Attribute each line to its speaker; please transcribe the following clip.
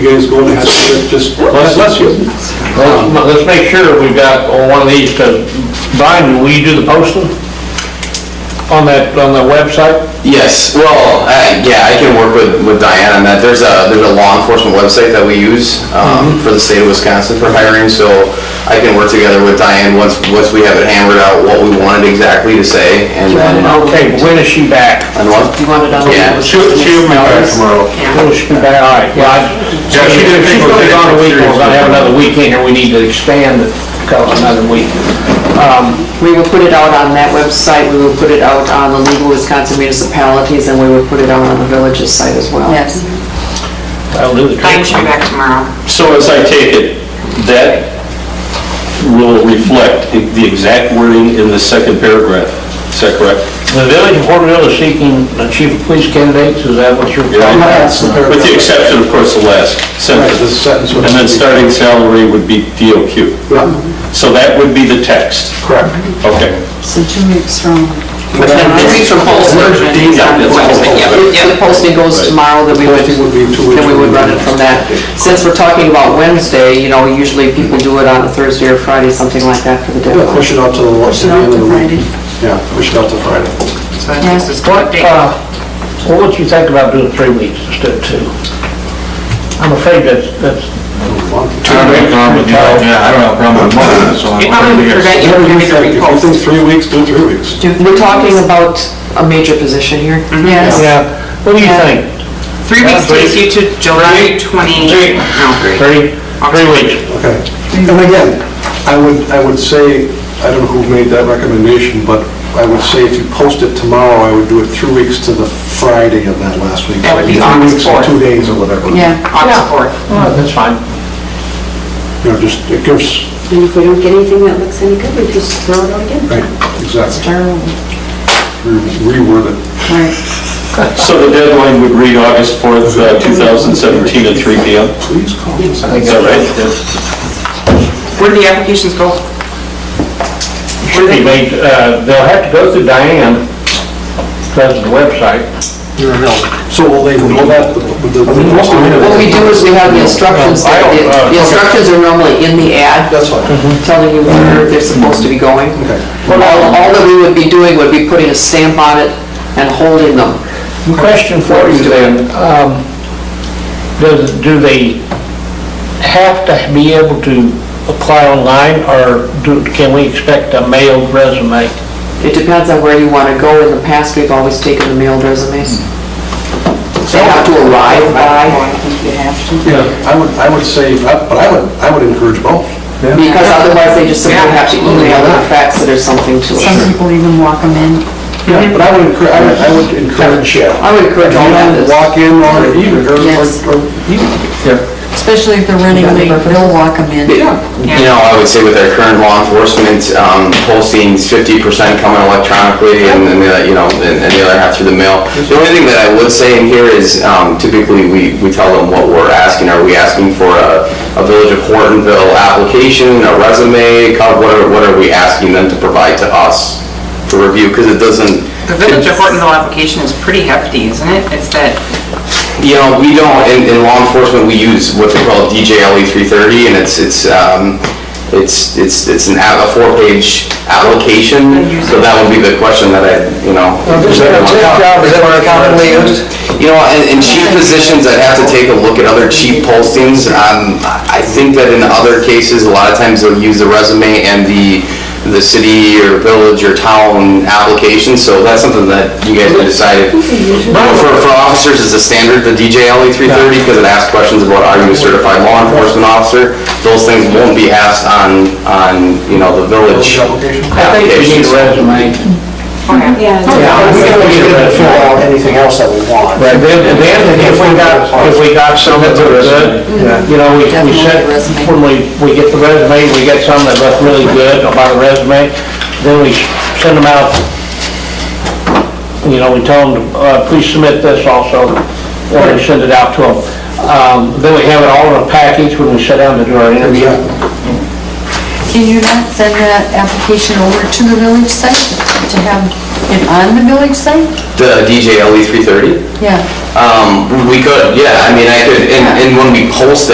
Speaker 1: You guys going to have to just,
Speaker 2: Bless
Speaker 1: bless you.
Speaker 2: Let's let's make sure we've got one of these, because Brian, will you do the posting on that, on the website?
Speaker 3: Yes, well, I- yeah, I can work with, with Diane on that. There's a, there's a law enforcement website that we use um, for the state of Wisconsin for hiring, so I can work together with Diane once, once we have it hammered out what we wanted exactly to say, and then,
Speaker 2: Okay, when is she back?
Speaker 3: and what?
Speaker 4: You want it on?
Speaker 3: Yeah,
Speaker 2: She'll, she'll be back
Speaker 3: tomorrow.
Speaker 2: Will she be back, all right, well, I-
Speaker 1: Yeah, she didn't
Speaker 2: if
Speaker 1: think
Speaker 2: she's
Speaker 1: we're
Speaker 2: gonna be
Speaker 1: taking
Speaker 2: gone
Speaker 1: it
Speaker 2: a week, we're gonna
Speaker 1: seriously.
Speaker 2: have another weekend, and we need to expand it, cause another week. Um,
Speaker 4: We will put it out on that website, we will put it out on the legal Wisconsin municipalities, and we will put it out on the villages site as well.
Speaker 5: Yes,
Speaker 2: That'll do the
Speaker 5: I can
Speaker 2: trick.
Speaker 5: come back tomorrow.
Speaker 6: So as I take it, that will reflect the exact wording in the second paragraph. Is that correct?
Speaker 2: The village of Porterville is seeking the chief of police candidates, is that what you're?
Speaker 6: Yeah.
Speaker 1: That's the paragraph.
Speaker 6: With the exception, of course, the last
Speaker 1: Right, the
Speaker 6: sentence.
Speaker 1: sentence would-
Speaker 6: And then starting salary would be DOQ.
Speaker 1: Yeah,
Speaker 6: So that would be the text.
Speaker 1: Correct.
Speaker 6: Okay.
Speaker 5: So two weeks from...
Speaker 4: This is for posting.
Speaker 6: Dean's on the website, yeah,
Speaker 4: If the posting goes tomorrow, then we would,
Speaker 1: Posting would be two weeks
Speaker 4: then we would run it from that. Since we're talking about Wednesday, you know, usually people do it on a Thursday or Friday, something like that for the deadline.
Speaker 1: push it out to the, to the end of the week. Yeah, push it out to Friday.
Speaker 5: So I think this is what date?
Speaker 2: Uh, Well, what you think about doing three weeks instead of two? I'm afraid that's, that's,
Speaker 5: It probably would prevent you
Speaker 1: Whatever
Speaker 5: from
Speaker 1: you think, if you think
Speaker 5: having to repost.
Speaker 1: three weeks, do three weeks.
Speaker 4: We're talking about a major position here.
Speaker 5: Yes.
Speaker 2: yeah, what do you think?
Speaker 5: Three weeks takes you to July 20,
Speaker 2: Three.
Speaker 5: no, three.
Speaker 2: Three, three weeks.
Speaker 1: Okay. And again, I would, I would say, I don't know who made that recommendation, but I would say if you post it tomorrow, I would do it three weeks to the Friday of that last week.
Speaker 5: That would
Speaker 1: Three
Speaker 5: be August
Speaker 1: weeks or
Speaker 5: fourth.
Speaker 1: Two days or whatever.
Speaker 5: August 4th.
Speaker 2: Oh, that's fine.
Speaker 1: You know, just, it gives,
Speaker 7: And if we don't get anything that looks any good, we just throw it out again.
Speaker 1: right, exactly, Re- reword it.
Speaker 6: So the deadline would read August 4th, uh, 2017 at 3 PM?
Speaker 1: Please call
Speaker 6: Is
Speaker 1: us.
Speaker 6: that right?
Speaker 5: Where do the applications go?
Speaker 2: Should be made, uh, they'll have to go through Diane, because of the website.
Speaker 1: So will they, will that, the,
Speaker 4: What we do is we have the instructions,
Speaker 2: I
Speaker 4: that
Speaker 2: don't, uh,
Speaker 4: the- the instructions are normally in the ad, Mm-hmm.
Speaker 1: That's fine,
Speaker 4: telling you where they're supposed to be going.
Speaker 1: okay.
Speaker 4: All, all that we would be doing would be putting a stamp on it and holding them.
Speaker 2: Question for you then, um, does, do they have to be able to apply online, or do, can we expect a mailed resume?
Speaker 4: It depends on where you want to go. In the past, we've always taken the mailed resumes. They have to arrive by,
Speaker 1: Yeah, I would, I would say, uh, but I would, I would encourage both.
Speaker 4: because otherwise they just simply have to email or fax it or something to us.
Speaker 5: people even walk them in.
Speaker 1: Yeah, but I would encourage, I would- I would encourage, yeah.
Speaker 4: I would encourage all
Speaker 1: You
Speaker 4: of this.
Speaker 1: walk in or even, or,
Speaker 5: Yes.
Speaker 1: or, even.
Speaker 8: Especially if they're running late, they'll walk them in.
Speaker 3: You know, I would say with our current law enforcement um, postings, 50% coming electronically and then, the, you know, and and the other half through the mail. The only thing that I would say in here is um, typically we, we tell them what we're asking. Are we asking for a, a Village of Hortonville application, a resume, co- what are, what are we asking them to provide to us to review? Because it doesn't,
Speaker 5: The Village of Hortonville application is pretty hefty, isn't it? It's that,
Speaker 3: you know, we don't, in, in law enforcement, we use what they call DJLE 330, E and it's, it's, um, it's, it's, it's an, app- a four-page application, so that would be the question that I, you know. You know, in, in chief positions, I'd have to take a look at other chief postings. Um, I think that in other cases, a lot of times they'll use the resume and the, the city or village or town application, so that's something that you guys can decide. But For, for officers, it's a standard, the DJLE E three thirty, because it asks questions about are you a certified law enforcement officer? Those things won't be asked on, on, you know, the village
Speaker 1: application.
Speaker 2: I think we need a
Speaker 3: applications.
Speaker 2: resume.
Speaker 5: okay.
Speaker 7: Yeah.
Speaker 9: anything else that we want.
Speaker 2: Right, then, and then if we got, if we got some that were good, you know, we, we said,
Speaker 8: Definitely resume.
Speaker 2: when we, we get the resume, we get some that look really good about a resume, then we send them out, you know, we tell them, uh, please submit this also, or we send it out to them. Um, then we have it all in a package when we sit down to do our interview.
Speaker 8: Can you not send that application over to the village site to have it on the village site?
Speaker 3: The DJLE 330?
Speaker 8: Yeah.
Speaker 3: Um, we could, yeah, I mean, I could, and, and when we post it.